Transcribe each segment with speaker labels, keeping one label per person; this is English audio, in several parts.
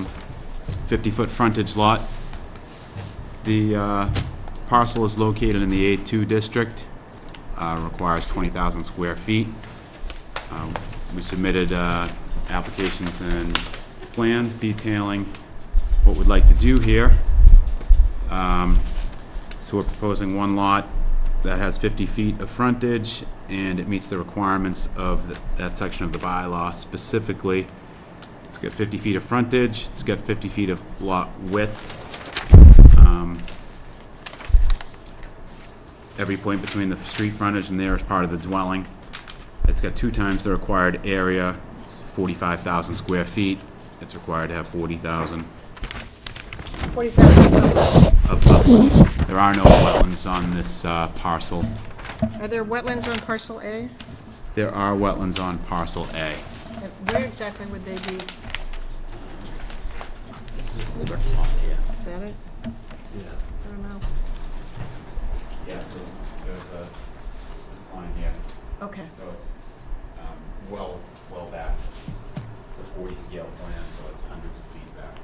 Speaker 1: 50-foot Um, frontage lot. The uh, parcel is located in the A2 district, uh, requires 20,000 square feet. Um, We submitted uh, applications and plans detailing what we'd like to do here. Um, So we're proposing one lot that has 50 feet of frontage, and it meets the requirements of th- that section of the bylaw specifically. It's got 50 feet of frontage, it's got 50 feet of lot width. Um, Every point between the street frontage and there is part of the dwelling. It's got two times the required area, it's 45,000 square feet. It's required to have 40,000
Speaker 2: 40,000.
Speaker 1: of wetlands. There are no wetlands on this uh, parcel.
Speaker 2: Are there wetlands on parcel A?
Speaker 1: There are wetlands on parcel A.
Speaker 2: And Where exactly would they be?
Speaker 3: This is older lot here.
Speaker 2: Is that it?
Speaker 3: Yeah.
Speaker 2: I don't know.
Speaker 1: Yeah, so there's a, this line here,
Speaker 2: Okay,
Speaker 1: so it's, um, well, well back. It's a forty scale plan, so it's hundreds of feet back.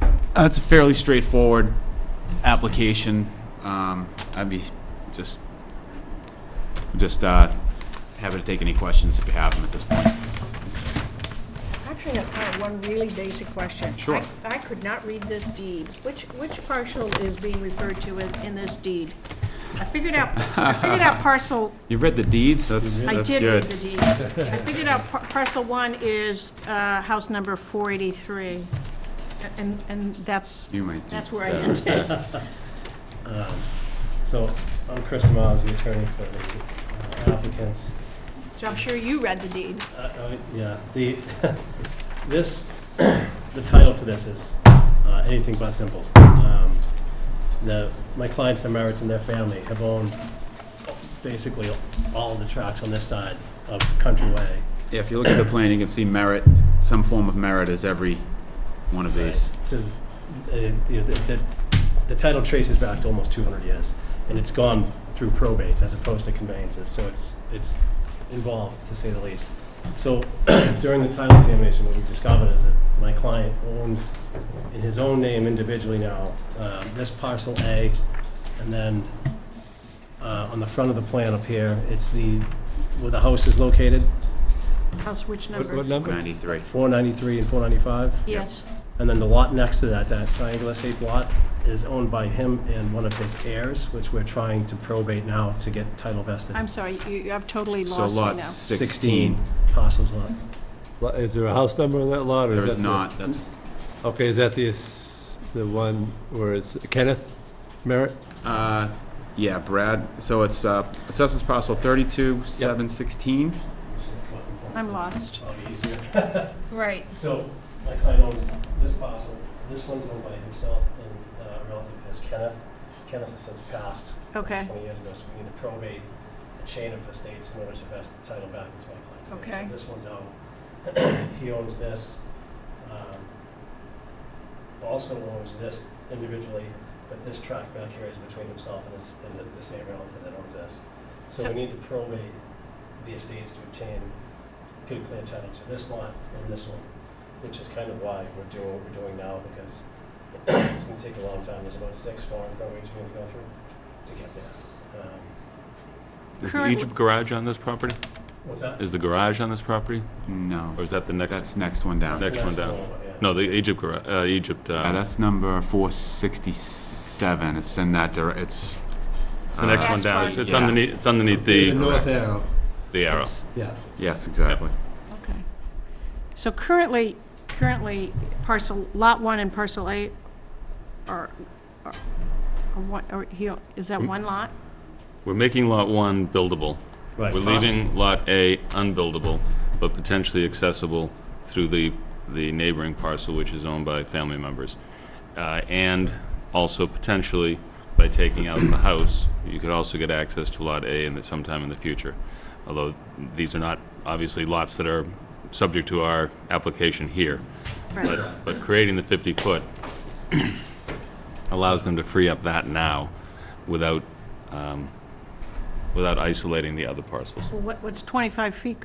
Speaker 1: Uh, it's a fairly straightforward application. Um, I'd be just, just, uh, happy to take any questions if you have them at this point.
Speaker 2: actually, I have one really basic question.
Speaker 1: Sure.
Speaker 2: I- I could not read this deed. Which, which parcel is being referred to in, in this deed? I figured out, I figured out parcel,
Speaker 1: You read the deeds, that's,
Speaker 2: I
Speaker 1: that's
Speaker 2: did read
Speaker 1: good.
Speaker 2: the deed. I figured out par- parcel one is, uh, house number 483, A- and, and that's,
Speaker 1: You might do
Speaker 2: that's where I ended.
Speaker 4: Um, So, I'm Chris Miles, the attorney for the uh, applicants.
Speaker 2: So I'm sure you read the deed.
Speaker 4: Uh, uh, Yeah, the, this, the title to this is uh, anything but simple. Um, The, my clients, the Merritts and their family have owned basically all of the tracks on this side of Country Way.
Speaker 1: Yeah, if you look at the plan, you can see merit, some form of merit is every one of these.
Speaker 4: So, uh, you know, the, the- the title traces back to almost two hundred years, and it's gone through probates as opposed to conveyances, so it's, it's involved, to say the least. So during the title examination, what we discovered is that my client owns, in his own name individually now, uh, this parcel A, and then uh, on the front of the plan up here, it's the, where the house is located,
Speaker 2: House which
Speaker 3: What,
Speaker 2: number?
Speaker 3: what number?
Speaker 1: 93.
Speaker 4: four ninety-three and four ninety-five.
Speaker 2: Yes.
Speaker 4: And then the lot next to that, that triangular shaped lot, is owned by him and one of his heirs, which we're trying to probate now to get title vested.
Speaker 2: I'm sorry, you, you- I've totally
Speaker 1: So
Speaker 2: lost me
Speaker 1: lot
Speaker 2: now.
Speaker 1: 16,
Speaker 4: Parcels lot.
Speaker 3: Lo- Is there a house number on that lot? or
Speaker 1: there is
Speaker 3: that the-
Speaker 1: not, that's,
Speaker 3: Okay, is that the, s- the one where it's Kenneth Merritt?
Speaker 1: uh, yeah, Brad, so it's, uh, assessors parcel 32, 716.
Speaker 2: I'm lost.
Speaker 4: Probably easier.
Speaker 2: Right.
Speaker 4: So my client owns this parcel, this one's owned by himself and uh, a relative is Kenneth. Kenneth has since passed
Speaker 2: Okay,
Speaker 4: twenty years ago, so we need to probate a chain of estates in order to vest the title back into my client's name.
Speaker 2: Okay.
Speaker 4: So this one's out, he owns this, um, also owns this individually, but this tract back here is between himself and his, and the- the same relative that owns this. So
Speaker 2: So-
Speaker 4: we need to probate the estates to obtain good clear title to this lot and this one, which is kind of why we're doing what we're doing now, because it's gonna take a long time, there's about six foreign probates we have to go through to get there. Um,
Speaker 5: Is the
Speaker 2: Currently-
Speaker 5: Egypt garage on this property?
Speaker 4: What's that?
Speaker 5: Is the garage on this property,
Speaker 1: No,
Speaker 5: or is that the next?
Speaker 1: that's next one down.
Speaker 4: That's
Speaker 5: Next
Speaker 4: the
Speaker 5: one down.
Speaker 4: yeah.
Speaker 5: No, the Egypt garage, uh, Egypt,
Speaker 1: Uh,
Speaker 5: uh,
Speaker 1: that's number 467, it's in that, dir- it's.
Speaker 5: it's the next
Speaker 2: uh,
Speaker 5: one down.
Speaker 2: That's
Speaker 5: It's it's
Speaker 1: fine.
Speaker 5: underneath, it's underneath the,
Speaker 3: north
Speaker 5: Correct.
Speaker 3: arrow.
Speaker 5: the arrow.
Speaker 1: it's-
Speaker 3: Yeah.
Speaker 1: Yes, exactly.
Speaker 2: okay. So currently, currently parcel, lot one and parcel eight are, are, are one, are, he, is
Speaker 5: Hmm.
Speaker 2: that one lot?
Speaker 5: We're making Lot 1 buildable.
Speaker 4: Right.
Speaker 5: We're leaving Lot A unbuildable, but potentially accessible through the, the neighboring parcel, which is owned by family members. Uh, And also potentially, by taking out the house, you could also get access to Lot A in the, sometime in the future. Although, these are not, obviously, lots that are subject to our application here.
Speaker 2: Right.
Speaker 5: But, but creating the 50-foot allows them to free up that now without, um, without isolating the other parcels.
Speaker 2: Well, what, what's 25 feet